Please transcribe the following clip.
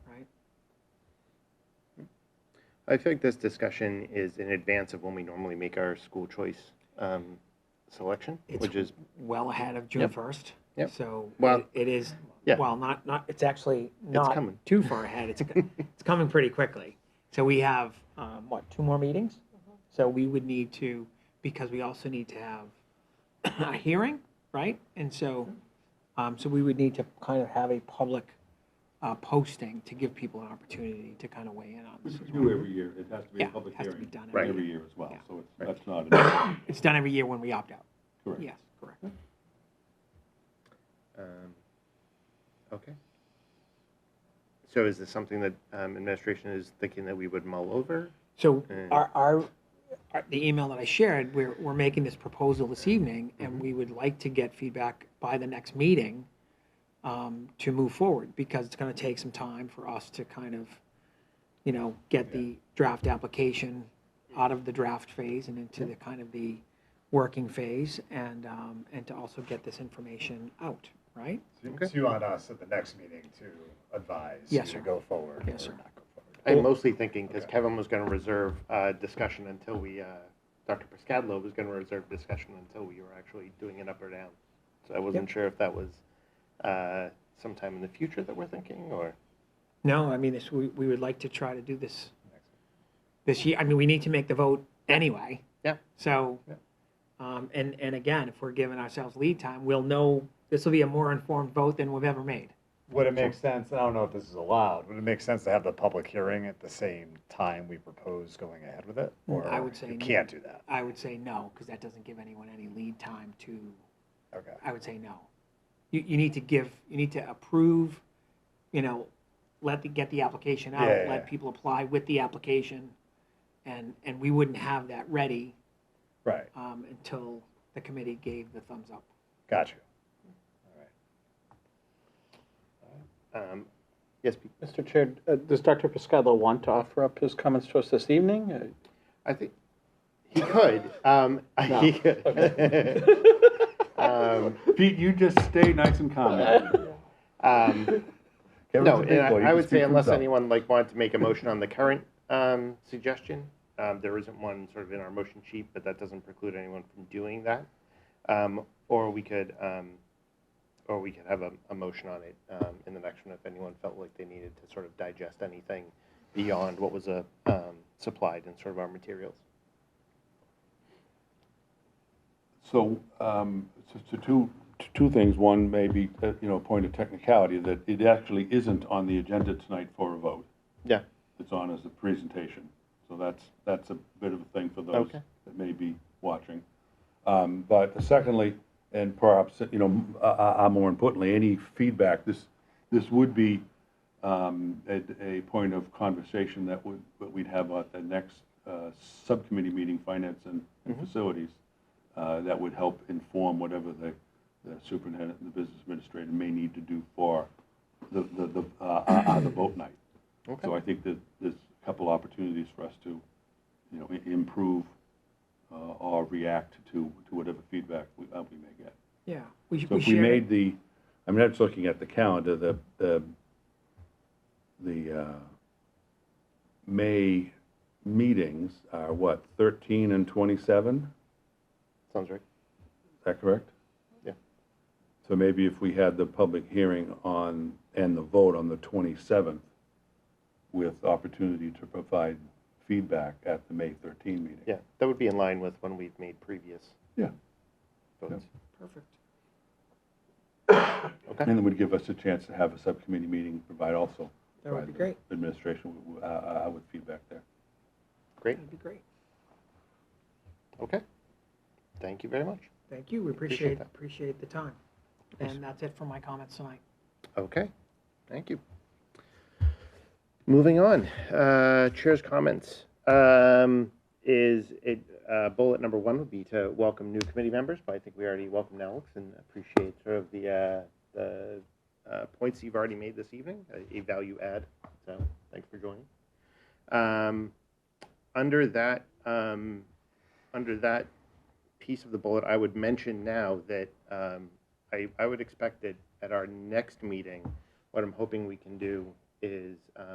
I feel like this discussion is in advance of when we normally make our school choice um, selection, It's which is, well ahead of June Yep. first. Yep. So Well, it- it is, yeah. well, not, not, it's actually not coming. too far ahead. It's, co- it's coming pretty quickly. So we have, um, what, two more meetings? So we would need to, because we also need to have a hearing, right? And so, um, so we would need to kind of have a public, uh, posting to give people an opportunity to kind of weigh in on this. as We well. do every year, it has to be a Yeah, public has to be hearing done Right. every year as well, so it's, that's not, an- It's done every year when we opt out. correct. Yes, correct. um, okay. So is this something that um, administration is thinking that we would mull over? So Mm. our, our, our- the email that I shared, we're, we're making this proposal this evening, and we would like to get feedback by the next meeting um, to move forward, because it's gonna take some time for us to kind of, you know, get the draft application out of the draft phase and into the kind of the working phase, and, um, and to also get this information out, right? It's you on us at the next meeting to advise you Yes, to sir. go forward or Yes, sir. not go forward. I'm mostly thinking, because Okay. Kevin was going to reserve uh, discussion until we, uh, Dr. Piscadlo was going to reserve discussion until we were actually doing it up or down. So I wasn't sure if that was uh, sometime in the future that we're thinking, or? No, I mean, this, we, we would like to try to do this this year. I mean, we need to make the vote anyway. Yeah. So, Yeah. um, and, and again, if we're giving ourselves lead time, we'll know, this will be a more informed vote than we've ever made. Would it make sense, and I don't know if this is allowed, would it make sense to have the public hearing at the same time we propose going ahead with it? Or Mm, I would say You no. can't do that, I would say no, because that doesn't give anyone any lead time to, okay. I would say no. You, you need to give, you need to approve, you know, let the, get the application out, Yeah, yeah, let yeah. people apply with the application. And, and we wouldn't have that ready, Right, um, until the committee gave the thumbs up. got you. All right. um, Yes, Pete? Mr. Chair, uh, does Dr. Piscadlo want to offer up his comments to us this evening? Uh, I think he could. Um, He could. um, Pete, you just stay nice and calm. um, Kevin's no, a big and boy, I, I he can would speak say for unless himself. anyone like wanted to make a motion on the current um, suggestion, um, there isn't one sort of in our motion sheet, but that doesn't preclude anyone from doing that. Um, or we could, um, or we could have a, a motion on it um, in the next one if anyone felt like they needed to sort of digest anything beyond what was uh, um, supplied in sort of our materials. So, um, so- so two, two things. One may be, uh, you know, a point of technicality, that it actually isn't on the agenda tonight for a vote. Yeah. It's on as a presentation. So that's, that's a bit of a thing for those Okay. that may be watching. Um, But secondly, and perhaps, you know, uh, uh, uh, more importantly, any feedback, this, this would be um, a, a point of conversation that would, that we'd have at the next uh, subcommittee meeting, Finance and and Facilities, uh, that would help inform whatever the the superintendent and the business administrator may need to do for the, the, the, uh, uh, uh, the vote night. So I think that there's a couple opportunities for us to, you know, i- improve uh, or react to, to whatever feedback we, uh, we may get. Yeah. We, So if we shared it. made the, I mean, I'm just looking at the calendar, the, the, the, uh, May meetings are what, thirteen and twenty-seven? Sounds right. Is that correct? Yeah. So maybe if we had the public hearing on, and the vote on the 27th with opportunity to provide feedback at the May 13 meeting. Yeah, that would be in line with when we've made previous Yeah. votes. Perfect. Okay. And it would give us a chance to have a subcommittee meeting, provide also. That would be provide great. the Administration with- uh, uh, with feedback there. Great. That'd be great. Okay. Thank you very much. Thank you. We Appreciate appreciate, that. appreciate the time. And that's it for my comments tonight. Okay. Thank you. Moving on, uh, chair's comments. Um, is it, uh, bullet number one would be to welcome new committee members, but I think we already welcomed Alex and appreciate sort of the, uh, the, uh, points you've already made this evening, a- a value add. So thanks for joining. Um, under that, um, under that piece of the bullet, I would mention now that um, I, I would expect that at our next meeting, what I'm hoping we can do is um,